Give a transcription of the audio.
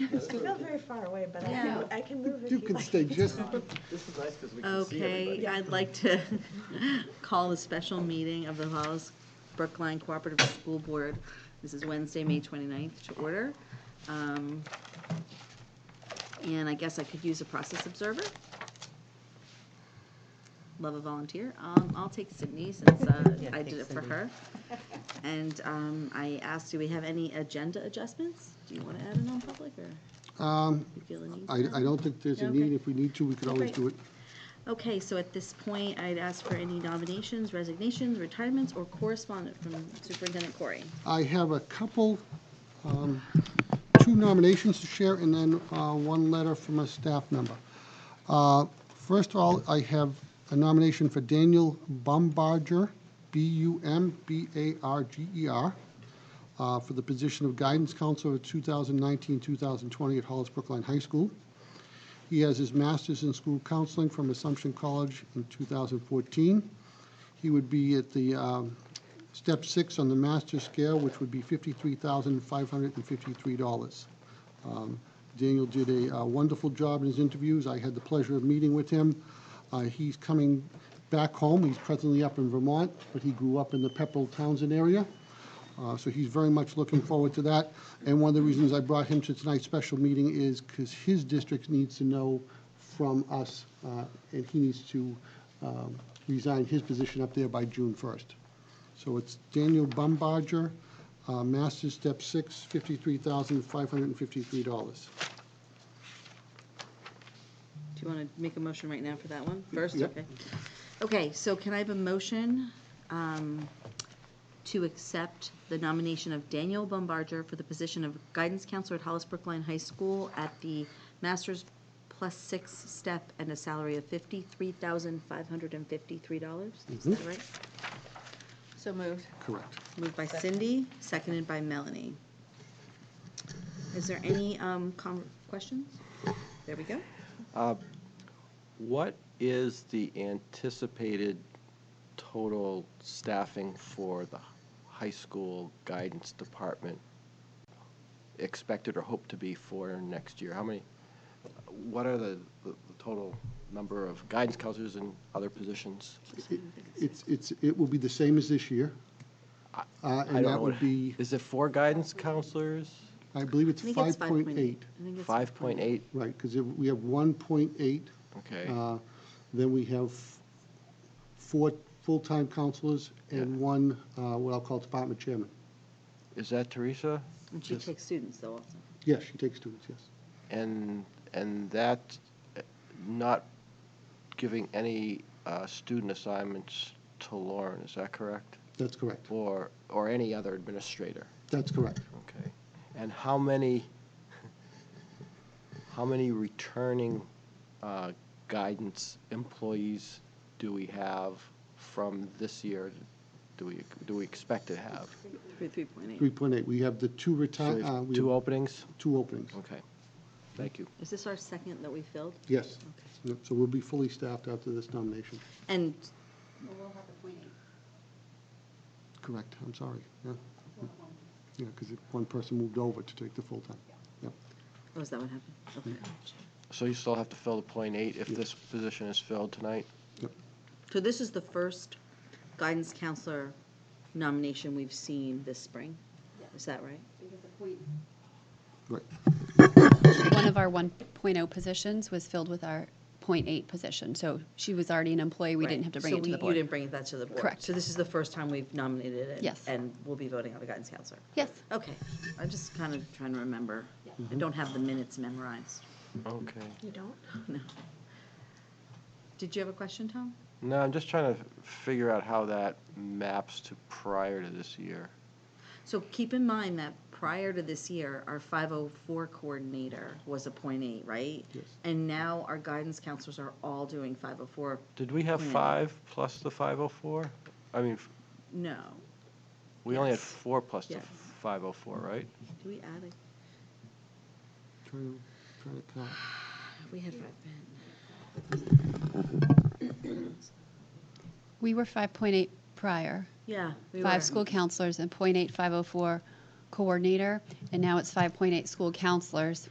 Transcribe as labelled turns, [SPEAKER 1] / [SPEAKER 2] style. [SPEAKER 1] I feel very far away, but I
[SPEAKER 2] Yeah.
[SPEAKER 1] can, I can move if
[SPEAKER 3] You
[SPEAKER 1] you
[SPEAKER 3] can
[SPEAKER 1] like.
[SPEAKER 3] stay just,
[SPEAKER 4] This is nice because we can see
[SPEAKER 2] Okay,
[SPEAKER 4] everybody.
[SPEAKER 2] I'd like to call a special meeting of the Hollis Brookline Cooperative School Board. This is Wednesday, May 29th, to order. Um, And I guess I could use a process observer. Love a volunteer. Um, I'll take Sydney since uh,
[SPEAKER 5] Yeah,
[SPEAKER 2] I
[SPEAKER 5] take
[SPEAKER 2] did it for
[SPEAKER 5] Sydney.
[SPEAKER 2] her. And um, I asked, do we have any agenda adjustments? Do you want to add a non-public or
[SPEAKER 3] um,
[SPEAKER 2] you feel the need? for
[SPEAKER 3] I,
[SPEAKER 2] that?
[SPEAKER 3] I don't think there's a need. If we need to, we could always
[SPEAKER 2] Great.
[SPEAKER 3] do it.
[SPEAKER 2] Okay, so at this point, I'd ask for any nominations, resignations, retirements, or correspondence from Superintendent Corey.
[SPEAKER 3] I have a couple, um, two nominations to share, and then uh, one letter from a staff member. Uh, First of all, I have a nomination for Daniel Bumbarger, B-U-M-B-A-R-G-E-R, E uh, for the position of Guidance Counselor 2019-2020 at Hollis Brookline High School. He has his master's in school counseling from Assumption College in 2014. He would be at the um, step six on the master scale, which would be $53,553. Um, Daniel did a uh, wonderful job in his interviews. I had the pleasure of meeting with him. Uh, He's coming back home. He's presently up in Vermont, but he grew up in the Pepperell Townsend area. Uh, So he's very much looking forward to that. And one of the reasons I brought him to tonight's special meeting is because his district needs to know from us, uh, and he needs to um, resign his position up there by June 1st. So it's Daniel Bumbarger, uh, Master's Step 6, $53,553.
[SPEAKER 2] Do you want to make a motion right now for that one first?
[SPEAKER 3] Yep.
[SPEAKER 2] Okay. Okay, so can I have a motion um, to accept the nomination of Daniel Bombarger for the position of guidance counselor at Hollis Brookline High School at the master's plus six step and a salary of fifty-three thousand five hundred and fifty-three dollars? Is that right?
[SPEAKER 5] So moved.
[SPEAKER 3] Correct.
[SPEAKER 2] Moved by Cindy, seconded by Melanie. Is there any um, com- questions? There we go.
[SPEAKER 4] What is the anticipated total staffing for the high school guidance department expected or hoped to be for next year? How many, what are the, the the total number of guidance counselors and other positions?
[SPEAKER 3] It's, it's, it will be the same as this year. Uh,
[SPEAKER 4] I
[SPEAKER 3] And
[SPEAKER 4] don't
[SPEAKER 3] that
[SPEAKER 4] know
[SPEAKER 3] would
[SPEAKER 4] what-
[SPEAKER 3] be,
[SPEAKER 4] Is it four guidance counselors?
[SPEAKER 3] I believe it's
[SPEAKER 2] I think it's
[SPEAKER 3] 5.8.
[SPEAKER 2] 5.8. I think it's
[SPEAKER 4] Five point eight?
[SPEAKER 3] Right, because we have 1.8.
[SPEAKER 4] Okay.
[SPEAKER 3] uh, Then we have four full-time counselors and one, uh, what I'll call department chairman.
[SPEAKER 4] Is that Teresa?
[SPEAKER 2] And she takes students though also.
[SPEAKER 3] Yes, she takes students, yes.
[SPEAKER 4] And, and that, uh, not giving any uh, student assignments to Lauren, is that correct?
[SPEAKER 3] That's correct.
[SPEAKER 4] Or, or any other administrator?
[SPEAKER 3] That's correct.
[SPEAKER 4] Okay. And how many, how many returning uh, guidance employees do we have from this year? Do we, do we expect to have?
[SPEAKER 2] Three, three point eight.
[SPEAKER 3] 3.8. We have the two
[SPEAKER 4] So
[SPEAKER 3] retire,
[SPEAKER 4] there's
[SPEAKER 3] uh, we
[SPEAKER 4] Two
[SPEAKER 3] have
[SPEAKER 4] openings?
[SPEAKER 3] two openings.
[SPEAKER 4] Okay. Thank you.
[SPEAKER 2] Is this our second that we filled?
[SPEAKER 3] Yes.
[SPEAKER 2] Okay.
[SPEAKER 3] Yep, So we'll be fully staffed after this nomination.
[SPEAKER 2] And
[SPEAKER 3] Correct, I'm sorry. Yeah, yeah, because one person moved over to take the full time. Yep.
[SPEAKER 2] oh, is that what happened? Okay.
[SPEAKER 4] So you still have to fill the point eight if this position is filled tonight?
[SPEAKER 2] So this is the first guidance counselor nomination we've seen this spring. Is that right?
[SPEAKER 3] Right.
[SPEAKER 6] one of our 1.0 positions was filled with our .8 position. So she was already an employee. We didn't
[SPEAKER 2] Right.
[SPEAKER 6] have to bring
[SPEAKER 2] So
[SPEAKER 6] it to
[SPEAKER 2] we-
[SPEAKER 6] the
[SPEAKER 2] You
[SPEAKER 6] board.
[SPEAKER 2] didn't bring that to the board.
[SPEAKER 6] Correct.
[SPEAKER 2] So this is the first time we've nominated it.
[SPEAKER 6] Yes.
[SPEAKER 2] And we'll be voting on a guidance counselor.
[SPEAKER 6] Yes.
[SPEAKER 2] Okay, I'm just kind of trying to remember. I don't have the minutes memorized.
[SPEAKER 4] Okay.
[SPEAKER 1] You don't?
[SPEAKER 2] No. Did you have a question, Tom?
[SPEAKER 4] No, I'm just trying to figure out how that maps to prior to this year.
[SPEAKER 2] So keep in mind that prior to this year, our 504 coordinator was a point eight, right?
[SPEAKER 3] Yes.
[SPEAKER 2] And now our guidance counselors are all doing 504.
[SPEAKER 4] Did we have
[SPEAKER 2] Yeah.
[SPEAKER 4] five oh plus the 504? I mean, f-
[SPEAKER 2] No.
[SPEAKER 4] we only had
[SPEAKER 2] Yes.
[SPEAKER 4] four plus the
[SPEAKER 2] Yes.
[SPEAKER 4] 504, right?
[SPEAKER 2] Do we add a,
[SPEAKER 3] Trying to, trying to count.
[SPEAKER 2] we had five.
[SPEAKER 6] We were 5.8 prior,
[SPEAKER 2] Yeah. we were.
[SPEAKER 6] five school oh counselors and .8 504 coordinator, and now it's 5.8 school counselors